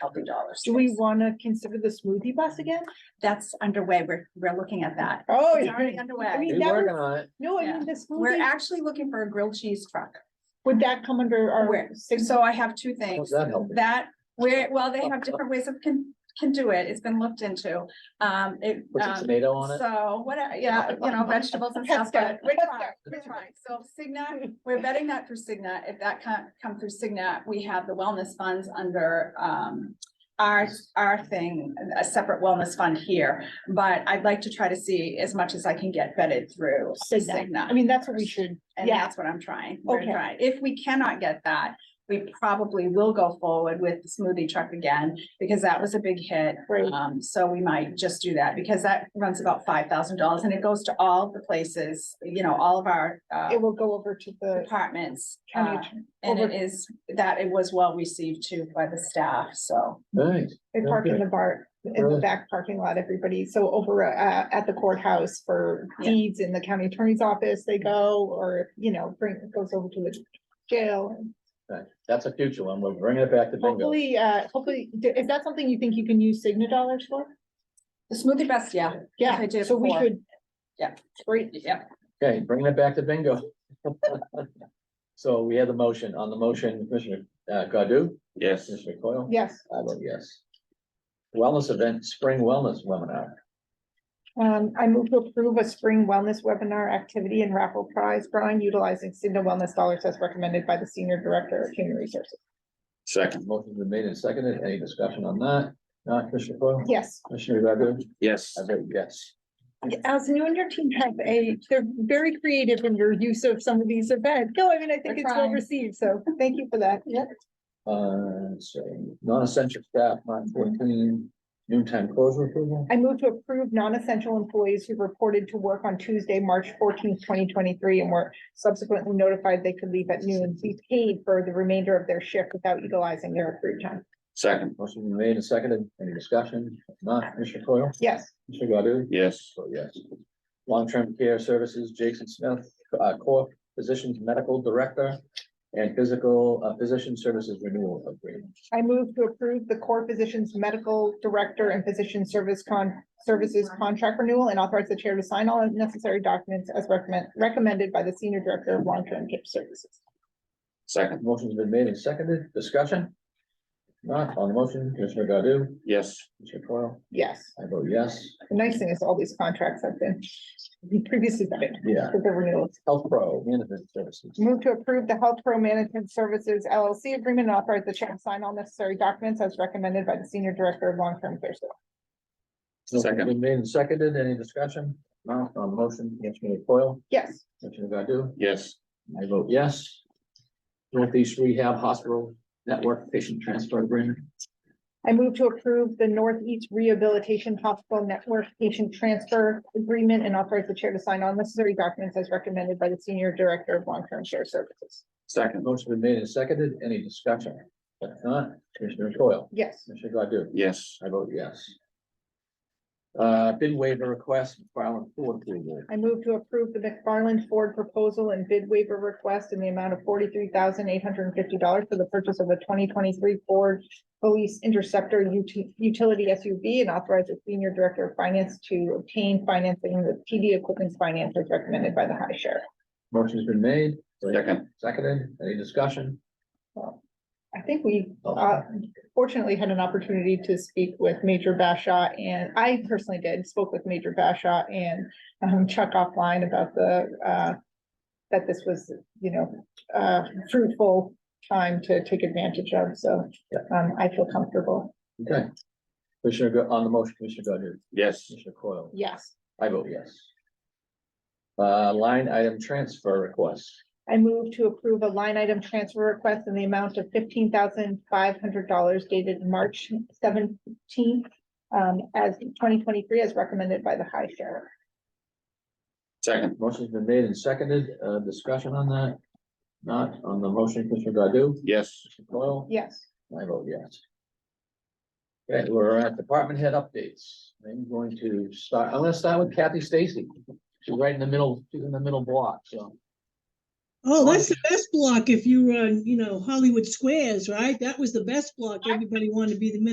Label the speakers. Speaker 1: healthy dollar.
Speaker 2: Do we
Speaker 1: stores.
Speaker 2: want to consider the smoothie bus again?
Speaker 1: That's underway. We're, we're looking at that.
Speaker 2: Oh.
Speaker 1: It's already underway.
Speaker 2: mean,
Speaker 3: He's
Speaker 2: that
Speaker 3: working
Speaker 2: was-
Speaker 3: on it.
Speaker 2: No, I
Speaker 1: Yeah.
Speaker 2: mean, the
Speaker 1: We're
Speaker 2: smoothie,
Speaker 1: actually looking for a grilled cheese truck.
Speaker 2: would that come under our?
Speaker 1: Where-
Speaker 2: sig-
Speaker 1: So I have two
Speaker 3: How's
Speaker 1: things.
Speaker 3: that helping?
Speaker 1: That, where, well, they have different ways of can, can do it. It's been looked into. Um, it.
Speaker 3: Put some
Speaker 1: um,
Speaker 3: tomato on it.
Speaker 1: So what, I- yeah, you know, vegetables and stuff,
Speaker 2: Pesca,
Speaker 1: but we're
Speaker 2: pesca,
Speaker 1: trying, we're trying. So Cigna, we're betting that through Cigna. If that can come through Cigna, we have the wellness funds under um. Our, our thing, a separate wellness fund here, but I'd like to try to see as much as I can get vetted through Cigna.
Speaker 2: I mean, that's what we should,
Speaker 1: And
Speaker 2: yeah.
Speaker 1: that's what I'm trying. We're
Speaker 2: Okay.
Speaker 1: trying. If we cannot get that, we probably will go forward with the smoothie truck again, because that was a big hit.
Speaker 2: Right.
Speaker 1: Um, so we might just do that, because that runs about five thousand dollars, and it goes to all the places, you know, all of our uh
Speaker 2: it will go over to the
Speaker 1: departments.
Speaker 2: county.
Speaker 1: uh,
Speaker 2: attorney.
Speaker 1: And
Speaker 2: over-
Speaker 1: it is, that it was well received too by the staff, so.
Speaker 3: Nice.
Speaker 2: They park in
Speaker 3: Okay.
Speaker 2: the bar, in the
Speaker 3: Really?
Speaker 2: back parking lot, everybody, so over uh at the courthouse for
Speaker 1: Yeah.
Speaker 2: deeds in the county attorney's office, they go, or, you know, bring, goes over to the jail.
Speaker 3: Right. That's a future one. We're bringing it back to bingo.
Speaker 2: Hopefully, uh, hopefully, is that something you think you can use Cigna dollars for?
Speaker 1: The smoothie best, yeah,
Speaker 2: Yeah,
Speaker 1: I did
Speaker 2: so we
Speaker 1: before.
Speaker 2: should.
Speaker 1: Yeah.
Speaker 2: Great,
Speaker 1: yeah,
Speaker 3: Okay, bringing it back to bingo. So we had the motion. On the motion, Commissioner uh, Godu,
Speaker 4: Yes,
Speaker 3: Commissioner Coyle?
Speaker 2: yes,
Speaker 3: I vote yes. Wellness event, spring wellness webinar.
Speaker 2: um, I move to approve a spring wellness webinar activity and raffle prize drawing utilizing Cigna wellness dollars as recommended by the senior director of human resources.
Speaker 4: second,
Speaker 3: Motion's been made and seconded. Any discussion on that? Not Commissioner Coyle?
Speaker 2: Yes.
Speaker 3: Commissioner Godu?
Speaker 4: yes,
Speaker 3: I vote yes.
Speaker 2: Allison, you and your team have a, they're very creative in your use of some of these events. No, I mean, I think
Speaker 1: We're
Speaker 2: it's well
Speaker 1: trying.
Speaker 2: received, so thank you for that. Yep.
Speaker 3: Uh, so non-essential staff, nine fourteen, noontime closure approval.
Speaker 2: I move to approve non-essential employees who reported to work on Tuesday, March fourteenth, twenty twenty-three, and were subsequently notified they could leave at noon, be paid for the remainder of their shift without utilizing their accrued time.
Speaker 4: second,
Speaker 3: Motion been made and seconded. Any discussion? If Not Commissioner Coyle?
Speaker 2: Yes,
Speaker 3: Commissioner Godu?
Speaker 4: yes,
Speaker 3: So yes. Long-term care services, Jason Smith, uh, core physicians, medical director and physical, uh, physician services renewal agreement.
Speaker 2: I move to approve the core physicians, medical director and physician service con, services contract renewal and authorize the chair to sign all necessary documents as recommend, recommended by the senior director of long-term care services.
Speaker 4: second,
Speaker 3: Motion's been made and seconded. Discussion? If Not on the motion, Commissioner Godu?
Speaker 4: yes,
Speaker 3: Commissioner Coyle?
Speaker 2: Yes,
Speaker 3: I vote yes.
Speaker 2: the nice thing is all these contracts have been previously vetted
Speaker 3: Yeah.
Speaker 2: for the renewals.
Speaker 3: Health Pro, management services.
Speaker 2: Move to approve the Health Pro Management Services LLC agreement and authorize the chair to sign all necessary documents as recommended by the Senior Director of Long-Term Care. Services.
Speaker 3: Motion's
Speaker 4: Second.
Speaker 3: Been made and seconded. Any discussion? Not on the motion, Commissioner Coyle?
Speaker 2: Yes,
Speaker 3: Commissioner Godu?
Speaker 4: yes,
Speaker 3: I vote yes. Northeast Rehab Hospital Network Patient Transfer Agreement.
Speaker 2: I move to approve the Northeast Rehabilitation Hospital Network Patient Transfer Agreement and authorize the chair to sign all necessary documents as recommended by the Senior Director of Long-Term Care Services.
Speaker 4: second,
Speaker 3: Motion been made and seconded. Any discussion? If not, Commissioner Coyle?
Speaker 2: Yes,
Speaker 3: Commissioner Godu?
Speaker 4: yes,
Speaker 3: I vote yes. Uh, bid waiver request, filing for approval.
Speaker 2: I move to approve the McFarland Ford proposal and bid waiver request in the amount of forty-three thousand eight hundred and fifty dollars for the purchase of a twenty twenty-three Ford Police Interceptor ut- utility SUV and authorize the senior director of finance to obtain financing with TD Equipment Finance as recommended by the high sheriff.
Speaker 3: Motion's been made.
Speaker 4: second,
Speaker 3: Seconded. Any discussion?
Speaker 2: I think we
Speaker 3: Oh.
Speaker 2: uh, fortunately had an opportunity to speak with Major Bashaw and I personally did, spoke with Major Bashaw and um, Chuck offline about the uh, that this was, you know, uh, fruitful time to take advantage of, so
Speaker 3: Yeah.
Speaker 2: um, I feel comfortable.
Speaker 3: Okay. Commissioner, Go- on the motion, Commissioner Godu?
Speaker 4: yes,
Speaker 3: Commissioner Coyle?
Speaker 2: Yes,
Speaker 3: I vote yes. Uh, line item transfer request.
Speaker 2: I move to approve a line item transfer request in the amount of fifteen thousand five hundred dollars dated March seventeenth um, as twenty twenty-three as recommended by the high sheriff.
Speaker 4: second,
Speaker 3: Motion's been made and seconded. Uh, discussion on that? Not on the motion, Commissioner Godu?
Speaker 4: yes,
Speaker 3: Commissioner Coyle?
Speaker 2: Yes.
Speaker 3: I vote yes. Okay, we're at department head updates. I'm going to start, I'm gonna start with Kathy Stacy. She's right in the middle, she's in the middle block, so.
Speaker 5: Oh,
Speaker 3: Or-
Speaker 5: that's the best block if you run, you know, Hollywood Squares, right? That was the best block. Everybody wanted to be the middle.